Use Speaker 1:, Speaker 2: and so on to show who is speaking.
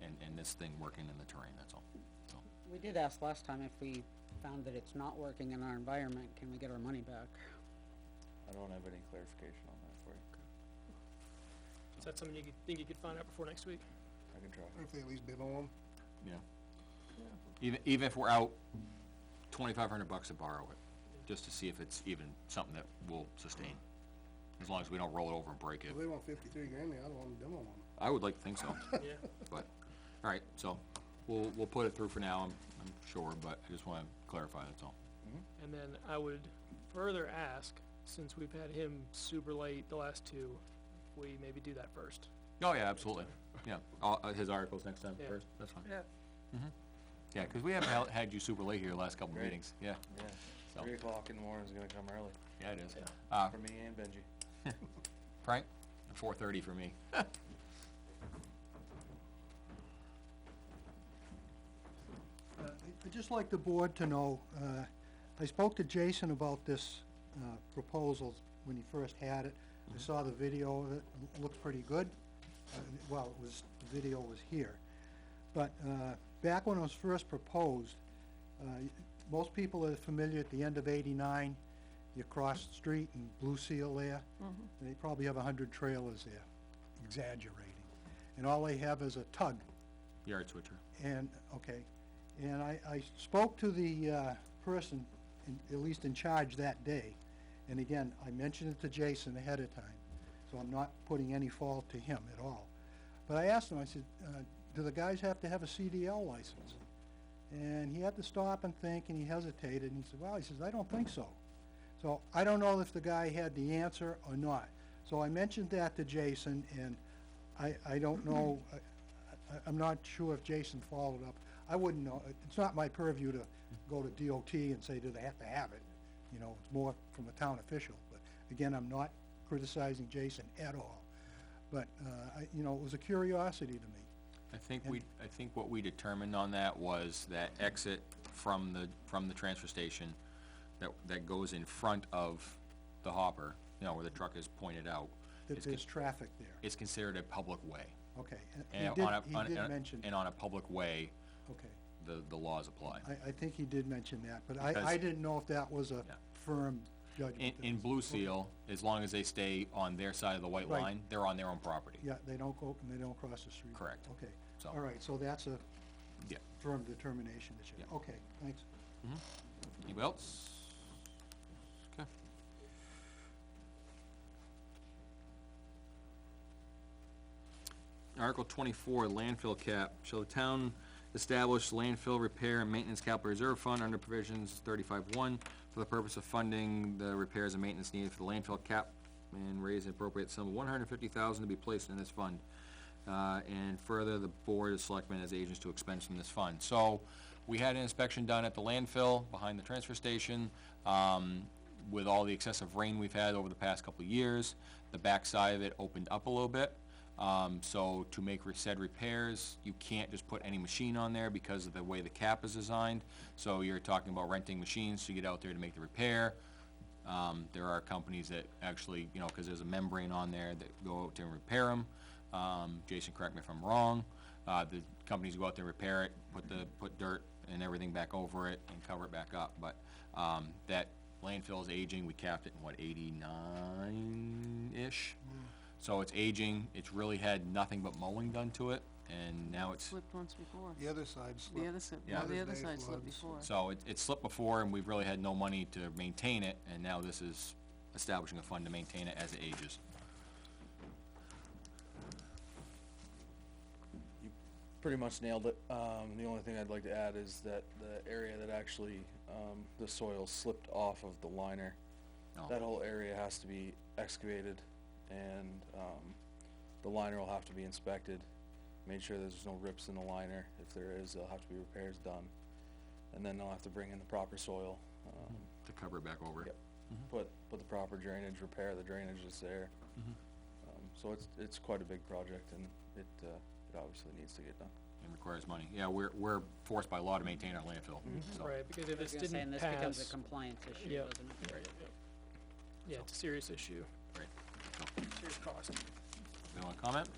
Speaker 1: Hmm? this thing working in the terrain, that's all, so.
Speaker 2: We did ask last time if we found that it's not working in our environment, can we get our money back?
Speaker 3: I don't have any clarification on that for you.
Speaker 4: Is that something you could, think you could find out before next week?
Speaker 3: I can try.
Speaker 5: If they at least bid on them.
Speaker 1: Yeah. Even, even if we're out twenty-five hundred bucks to borrow it, just to see if it's even something that will sustain, as long as we don't roll it over and break it.
Speaker 5: If they want fifty-three grand, I don't want them on them.
Speaker 1: I would like to think so,
Speaker 4: Yeah,
Speaker 1: but, all right, so, we'll, we'll put it through for now, I'm, I'm sure, but I just wanna clarify, that's all.
Speaker 4: and then I would further ask, since we've had him super late the last two, if we maybe do that first.
Speaker 1: Oh, yeah, absolutely, yeah, all, uh, his articles next time
Speaker 4: Yeah.
Speaker 1: first, that's fine,
Speaker 4: Yeah.
Speaker 1: yeah, 'cause we haven't hel- had you super late here the last couple
Speaker 3: Right.
Speaker 1: meetings, yeah,
Speaker 3: Yeah,
Speaker 1: So-
Speaker 3: three o'clock in the morning's gonna come early,
Speaker 1: yeah, it is.
Speaker 4: Yeah.
Speaker 1: Uh,
Speaker 3: for me and Benji.
Speaker 1: Frank, four thirty for me.
Speaker 6: Uh, I- I'd just like the board to know, uh, I spoke to Jason about this uh, proposal when he first had it. I saw the video of it, it looked pretty good. Uh, Well, it was, the video was here. But uh, back when it was first proposed, uh, most people are familiar, at the end of eighty-nine, you cross the street and Blue Seal there. They probably have a hundred trailers there, exaggerating. And all they have is a tug
Speaker 1: Yard switcher.
Speaker 6: and, okay, and I, I spoke to the, uh, person, in- at least in charge that day, and again, I mentioned it to Jason ahead of time, so I'm not putting any fault to him at all. But I asked him, I said, uh, do the guys have to have a CDL license? And he had to stop and think, and he hesitated, and he said, well, he says, I don't think so. So I don't know if the guy had the answer or not. So I mentioned that to Jason, and I, I don't know, I, I- I'm not sure if Jason followed up. I wouldn't know, It- it's not my purview to go to DOT and say, do they have to have it? You know, it's more from a town official, but again, I'm not criticizing Jason at all. But, uh, I, you know, it was a curiosity to me.
Speaker 1: I think we, I think what we determined on that was that exit from the, from the transfer station that, that goes in front of the hopper, you know, where the truck is pointed out,
Speaker 6: that
Speaker 1: is, con-
Speaker 6: there's traffic there.
Speaker 1: is considered a public way.
Speaker 6: Okay, and
Speaker 1: And
Speaker 6: he did,
Speaker 1: on a- on a-
Speaker 6: he did
Speaker 1: and a-
Speaker 6: mention,
Speaker 1: And on a public way,
Speaker 6: okay.
Speaker 1: the, the laws apply.
Speaker 6: I, I think he did mention that, but
Speaker 1: Because-
Speaker 6: I, I didn't know if that was a
Speaker 1: Yeah.
Speaker 6: firm judgment.
Speaker 1: In,
Speaker 6: that
Speaker 1: in
Speaker 6: was-
Speaker 1: Blue Seal, as long as they stay on their side of the white
Speaker 6: Right.
Speaker 1: line, they're on their own property.
Speaker 6: Yeah, they don't go, and they don't cross the street.
Speaker 1: Correct.
Speaker 6: Okay,
Speaker 1: So-
Speaker 6: all right, so that's a
Speaker 1: Yeah.
Speaker 6: firm determination that you,
Speaker 1: Yeah.
Speaker 6: okay, thanks.
Speaker 1: Anybody else? Okay. Article twenty-four, landfill cap. Shall the town establish landfill repair and maintenance capital reserve fund under provisions thirty-five one for the purpose of funding the repairs and maintenance needed for the landfill cap and raise an appropriate sum of one hundred and fifty thousand to be placed in this fund? Uh, and further, the board of selectmen as agents to expense from this fund. So, we had an inspection done at the landfill behind the transfer station. Um, with all the excessive rain we've had over the past couple of years, the backside of it opened up a little bit. Um, so to make re- said repairs, you can't just put any machine on there because of the way the cap is designed. So you're talking about renting machines to get out there to make the repair. Um, there are companies that actually, you know, cause there's a membrane on there that go out there and repair them. Um, Jason, correct me if I'm wrong, uh, the companies go out there, repair it, put the, put dirt and everything back over it and cover it back up, but, um, that landfill is aging, we capped it in what, eighty-nine-ish? So it's aging, it's really had nothing but mowing done to it, and now it's,
Speaker 7: Slipped once before.
Speaker 5: The other side
Speaker 7: The
Speaker 5: slipped.
Speaker 7: other side,
Speaker 1: Yeah.
Speaker 7: well, the
Speaker 5: Mother's
Speaker 7: other
Speaker 5: Day
Speaker 7: side slipped
Speaker 5: floods.
Speaker 7: before.
Speaker 1: so it, it slipped before and we've really had no money to maintain it, and now this is establishing a fund to maintain it as it ages.
Speaker 3: Pretty much nailed it. Um, the only thing I'd like to add is that the area that actually, um, the soil slipped off of the liner,
Speaker 1: Oh.
Speaker 3: that whole area has to be excavated and, um, the liner will have to be inspected. Made sure there's no rips in the liner. If there is, there'll have to be repairs done. And then they'll have to bring in the proper soil, um,
Speaker 1: To cover it back over.
Speaker 3: Yep. put, put the proper drainage, repair the drainage that's there. Um, so it's, it's quite a big project and it, uh, it obviously needs to get done.
Speaker 1: It requires money. Yeah, we're, we're forced by law to maintain our landfill, so.
Speaker 4: Mm-hmm. right, because if
Speaker 2: I was
Speaker 4: this
Speaker 2: gonna say, and
Speaker 4: didn't
Speaker 2: this becomes
Speaker 4: pass,
Speaker 2: a compliance issue,
Speaker 4: Yeah.
Speaker 2: doesn't it?
Speaker 4: yeah, it's a serious issue,
Speaker 1: Right.
Speaker 4: serious cost.
Speaker 1: Anyone comment?